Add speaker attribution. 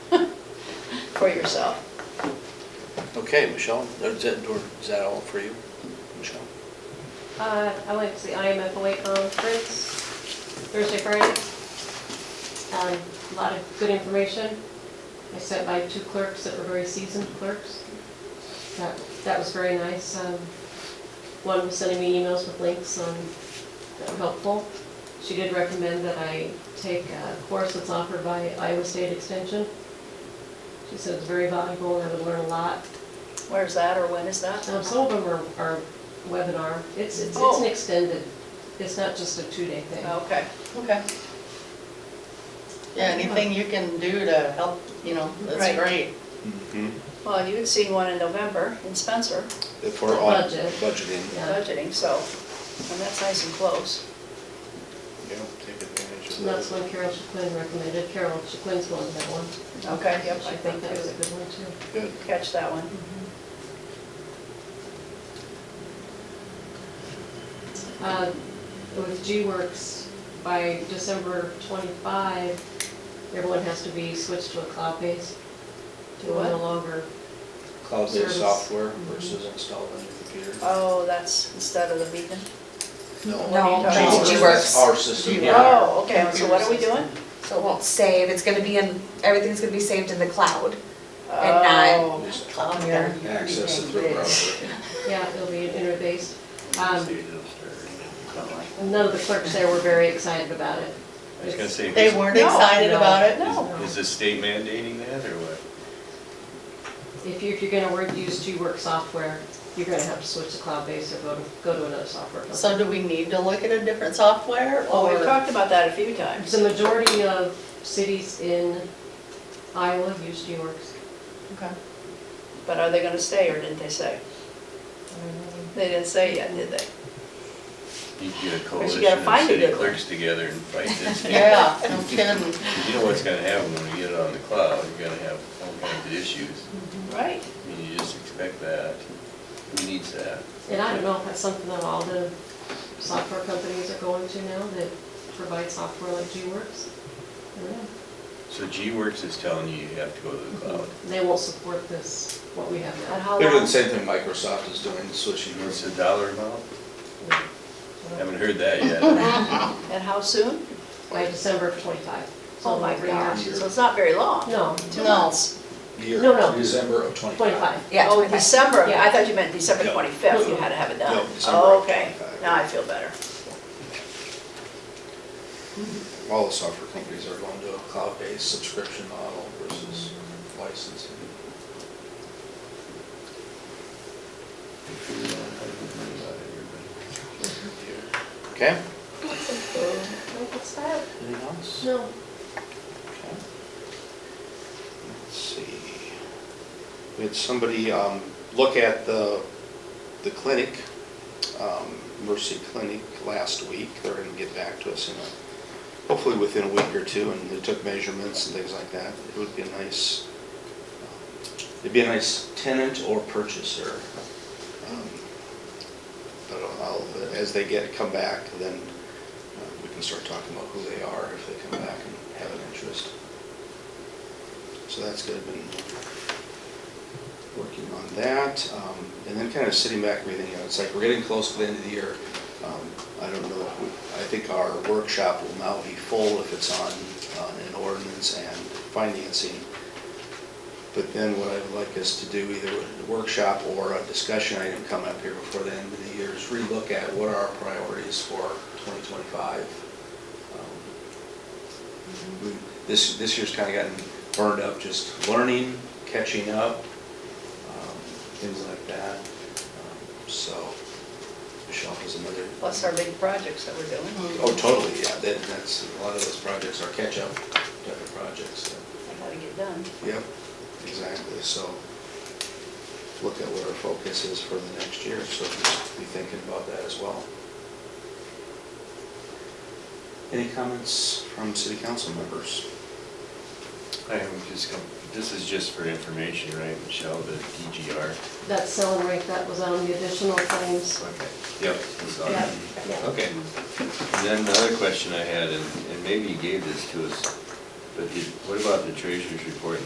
Speaker 1: for yourself.
Speaker 2: Okay, Michelle, is that, or is that all for you, Michelle?
Speaker 3: Uh, I went to the IMFOA conference Thursday, Friday. Um, a lot of good information. I sat by two clerks that were very seasoned clerks. That, that was very nice. Um, one was sending me emails with links on, that were helpful. She did recommend that I take a course that's offered by Iowa State Extension. She said it's very valuable and I would learn a lot.
Speaker 1: Where's that or when is that?
Speaker 3: Um, some of them are, are webinar, it's, it's, it's
Speaker 1: Oh.
Speaker 3: an extended, it's not just a two-day thing.
Speaker 1: Okay,
Speaker 4: Okay. Yeah, anything you can do to help, you know,
Speaker 1: Right.
Speaker 4: that's great.
Speaker 1: well, you had seen one in November in Spencer,
Speaker 2: If
Speaker 3: The
Speaker 2: we're on
Speaker 3: budget.
Speaker 2: budgeting.
Speaker 3: Yeah.
Speaker 1: budgeting, so, and that's nice and close.
Speaker 2: Yeah, take advantage
Speaker 3: And that's one Carol Chaplin recommended, Carol Chaplin's one, that one.
Speaker 1: Okay, yep,
Speaker 3: I think that was a good one too.
Speaker 2: Good.
Speaker 1: Catch that one.
Speaker 3: Uh, With G-Works, by December 25, everyone has to be switched to a cloud-based.
Speaker 1: To what?
Speaker 3: No longer,
Speaker 2: Cloud-based
Speaker 3: Service.
Speaker 2: software versus installed on your computer.
Speaker 1: Oh, that's instead of the beacon?
Speaker 5: No,
Speaker 1: that's
Speaker 2: Ours.
Speaker 5: G-Works.
Speaker 2: Our system, yeah.
Speaker 1: Oh, okay, so what are we doing?
Speaker 5: So it won't save, it's gonna be in, everything's gonna be saved in the cloud.
Speaker 1: Oh,
Speaker 2: Just
Speaker 5: On your-
Speaker 2: Access it through a browser.
Speaker 3: yeah, it'll be internet-based. Um,
Speaker 2: Stay downstairs.
Speaker 3: None of the clerks there were very excited about it.
Speaker 6: I was gonna say,
Speaker 4: They
Speaker 6: is,
Speaker 4: weren't
Speaker 1: No,
Speaker 4: excited
Speaker 3: no.
Speaker 4: about it?
Speaker 1: No.
Speaker 6: is the state mandating that or what?
Speaker 3: If you, if you're gonna work, use G-Work software, you're gonna have to switch to cloud-based or go to, go to another software company.
Speaker 4: So do we need to look at a different software
Speaker 1: well, Oh, we've
Speaker 4: or?
Speaker 1: talked about that a few times.
Speaker 3: The majority of cities in Iowa use G-Works.
Speaker 1: Okay. But are they gonna stay or didn't they say? They didn't say yet, did they?
Speaker 6: You can get a
Speaker 1: But you
Speaker 6: coalition
Speaker 1: gotta
Speaker 6: of
Speaker 1: find a
Speaker 6: city
Speaker 1: good one.
Speaker 6: clerks together and fight this. thing.
Speaker 4: Yeah, no kidding.
Speaker 6: You know what's gonna happen when you get it on the cloud, you're gonna have all kinds of issues.
Speaker 1: Right.
Speaker 6: I mean, you just expect that. Who needs that?
Speaker 3: And I don't know if that's something that all the software companies are going to now that provide software like G-Works. I don't know.
Speaker 6: So G-Works is telling you you have to go to the cloud.
Speaker 3: They won't support this, what we have
Speaker 1: And
Speaker 3: now.
Speaker 1: how
Speaker 2: They're
Speaker 1: long?
Speaker 2: doing the same thing Microsoft is doing, switching
Speaker 6: And What's
Speaker 2: versus
Speaker 6: the dollar amount? Haven't heard that yet.
Speaker 1: And how soon?
Speaker 3: By December of twenty-five. So
Speaker 1: Oh my
Speaker 3: like three
Speaker 1: gosh,
Speaker 3: years.
Speaker 1: so it's not very long.
Speaker 3: No,
Speaker 1: Two months.
Speaker 2: year,
Speaker 3: No, no.
Speaker 2: December of twenty-five.
Speaker 3: twenty-five.
Speaker 5: Yeah.
Speaker 1: Oh, December, I
Speaker 3: Yeah.
Speaker 1: thought you meant December
Speaker 2: No.
Speaker 1: 25th, you had to have it done.
Speaker 2: No, December of
Speaker 1: Okay,
Speaker 2: 25.
Speaker 1: now I feel better.
Speaker 2: All the software companies are going to a cloud-based subscription model versus licensing. Okay,
Speaker 3: What's that?
Speaker 2: anything else?
Speaker 3: No.
Speaker 2: Okay. Let's see. We had somebody um, look at the, the clinic, um, Mercy Clinic, last week. They're gonna get back to us in a, hopefully within a week or two, and they took measurements and things like that. It would be a nice, um, it'd be a nice tenant or purchaser. Um, But I'll, as they get, come back, then uh, we can start talking about who they are if they come back and have an interest. So that's good, been working on that. Um, And then kind of sitting back, reading, you know, it's like we're getting close to the end of the year. Um, I don't know, if we- I think our workshop will now be full if it's on, on an ordinance and financing. But then what I'd like us to do, either a workshop or a discussion item come up here before the end of the year, is relook at what are our priorities for 2025. Um, we- This, this year's kind of gotten burned up, just learning, catching up, um, things like that. Um, So, Michelle has another,
Speaker 1: Plus our big projects that we're doing.
Speaker 2: oh, totally, yeah, that- that's, a lot of those projects are catch-up type of projects. so.
Speaker 1: I gotta get done.
Speaker 2: Yep, exactly, so look at what our focus is for the next year, so just be thinking about that as well. Any comments from city council members?
Speaker 6: I am just, com- this is just for information, right, Michelle, the DGR?
Speaker 3: That selling rate, that was on the additional claims.
Speaker 6: Okay. Yep. I saw that.
Speaker 3: Yeah, yeah.
Speaker 6: Okay. And then another question I had, and and maybe you gave this to us, but did, what about the treasurer's report